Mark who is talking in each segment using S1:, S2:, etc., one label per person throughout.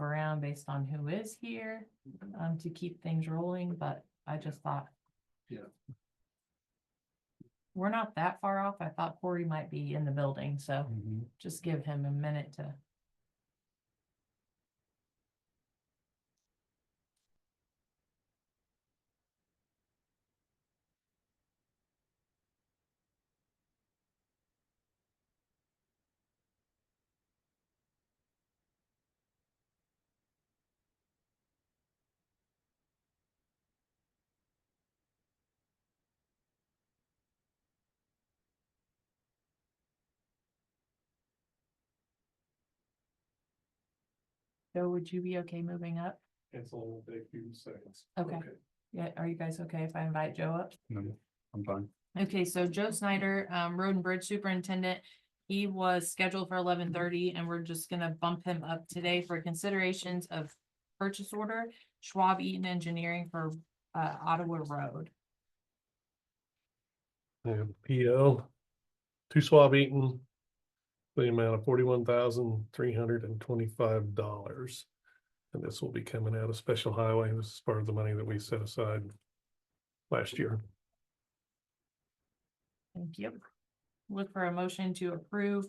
S1: around based on who is here, um, to keep things rolling, but I just thought.
S2: Yeah.
S1: We're not that far off. I thought Corey might be in the building, so
S2: Mhm.
S1: just give him a minute to. Joe, would you be okay moving up?
S2: It's a little bit, few seconds.
S1: Okay. Yeah, are you guys okay if I invite Joe up?
S2: No, I'm fine.
S1: Okay, so Joe Snyder, um, Road and Bridge Superintendent, he was scheduled for eleven thirty and we're just gonna bump him up today for considerations of purchase order, Schwab Eaton Engineering for, uh, Ottawa Road.
S3: I have a PO to Swab Eaton. for The amount of forty-one thousand, three hundred and twenty-five dollars. And this will be coming out of special highway. This is part of the money that we set aside last year.
S1: Thank you. Look for a motion to approve,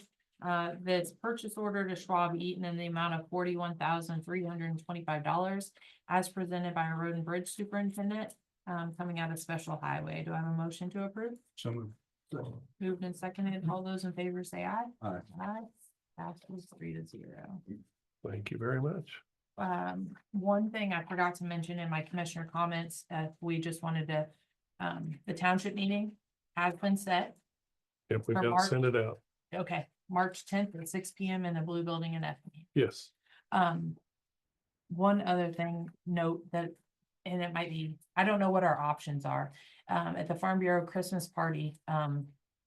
S1: uh, this purchase order to Schwab Eaton in the amount of forty-one thousand, three hundred and twenty-five dollars as presented by Road and Bridge Superintendent, um, coming out of Special Highway. Do I have a motion to approve?
S2: So moved.
S1: Moved and seconded. All those in favor say aye.
S2: Aye.
S1: Aye. Passes three to zero.
S3: Thank you very much.
S1: Um, one thing I forgot to mention in my commissioner comments, uh, we just wanted to, um, the township meeting has been set.
S3: If we
S1: For
S3: don't
S1: March?
S3: send it out,
S1: Okay, March tenth at six P M in the Blue Building in Effingham.
S3: yes,
S1: Um, one other thing, note that, and it might be, I don't know what our options are. Um, at the Farm Bureau Christmas party, um,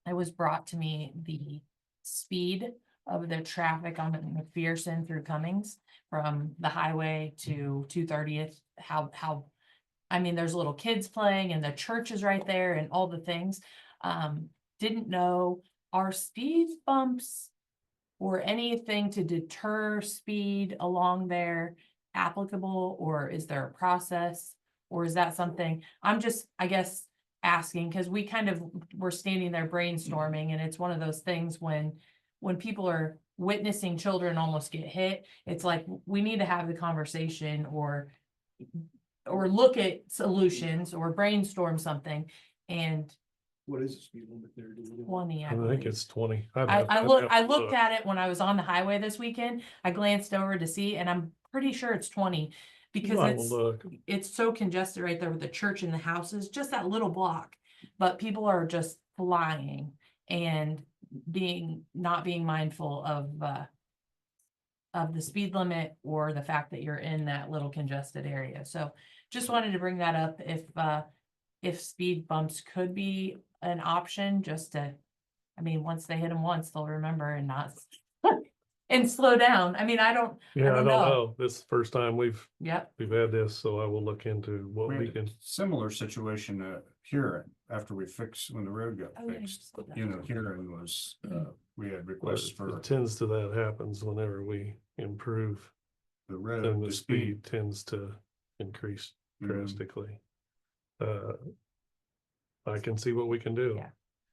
S1: it was brought to me the speed of the traffic on McPherson through Cummings from the highway to two thirtieth, how, how, I mean, there's little kids playing and the church is right there and all the things. Um, didn't know, our speed bumps or anything to deter speed along there applicable, or is there a process? Or is that something, I'm just, I guess, asking, because we kind of, were standing there brainstorming, and it's one of those things when, when people are witnessing children almost get hit, it's like, we need to have the conversation or or look at solutions or brainstorm something, and
S2: What is the speed limit there? Do we know?
S1: twenty.
S3: I think
S1: believe.
S3: it's twenty.
S1: I, I looked, I looked at it when I was on the highway this weekend. I glanced over to see, and I'm pretty sure it's twenty. Because it's,
S3: Look,
S1: it's so congested right there with the church and the houses, just that little block. But people are just flying and being, not being mindful of, uh, of the speed limit or the fact that you're in that little congested area. So just wanted to bring that up if, uh, if speed bumps could be an option, just to, I mean, once they hit them once, they'll remember and not and slow down. I mean, I don't,
S3: yeah, I
S1: don't
S3: don't
S1: know.
S3: know. This is the first time we've,
S1: yep,
S3: we've had this, so I will look into
S2: We
S3: what we
S2: had
S3: can.
S2: a Similar situation uh here after we fixed, when the road got
S1: Oh, yeah, you
S2: fixed,
S1: said that.
S2: you know, here it was, uh, we had
S3: what
S2: requests for
S3: uh, Tends to that happens whenever we improve.
S2: the road.
S3: And the speed tends to increase
S2: Mhm.
S3: drastically. Uh. I can see what we can do.
S1: Yeah.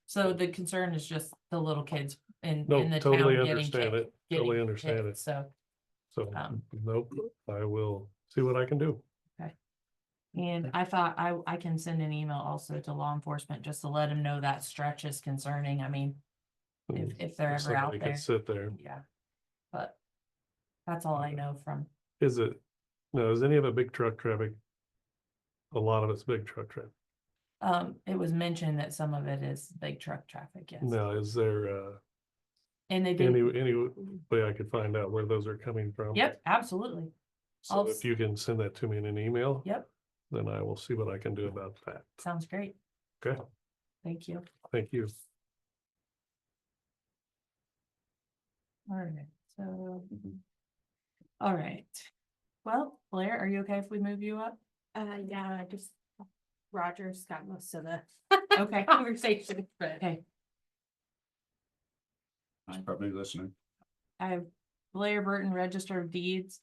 S1: so the concern is just the little kids in,
S3: No,
S1: in the town
S3: totally
S1: getting
S3: understand
S1: kicked.
S3: it, totally
S1: getting
S3: understand
S1: hit,
S3: it,
S1: So,
S3: so,
S1: um,
S3: nope, I will see what I can do.
S1: and I thought I, I can send an email also to law enforcement just to let them know that stretch is concerning. I mean, if,
S3: And
S1: if they're
S3: if
S1: ever out
S3: somebody can
S1: there,
S3: Sit there,
S1: yeah. But that's all I know from,
S3: is it, no, is any of it big truck traffic? A lot of it's big truck traffic,
S1: um, it was mentioned that some of it is big truck traffic, yes.
S3: now, is there, uh,
S1: And they
S3: any,
S1: did,
S3: any way I could find out where those are coming from?
S1: yep, absolutely. I'll
S3: So
S1: s-
S3: if you can send that to me in an email.
S1: Yep.
S3: Then I will see what I can do about that.
S1: Sounds great.
S3: Okay,
S1: Thank you.
S3: thank you.
S1: All right, so. All right. Well, Blair, are you okay if we move you up?
S4: Uh, yeah, I just Roger's got most of the
S1: Okay,
S4: conversation, but
S1: okay.
S2: He's probably listening.
S1: I have Blair Burton, Register of Deeds,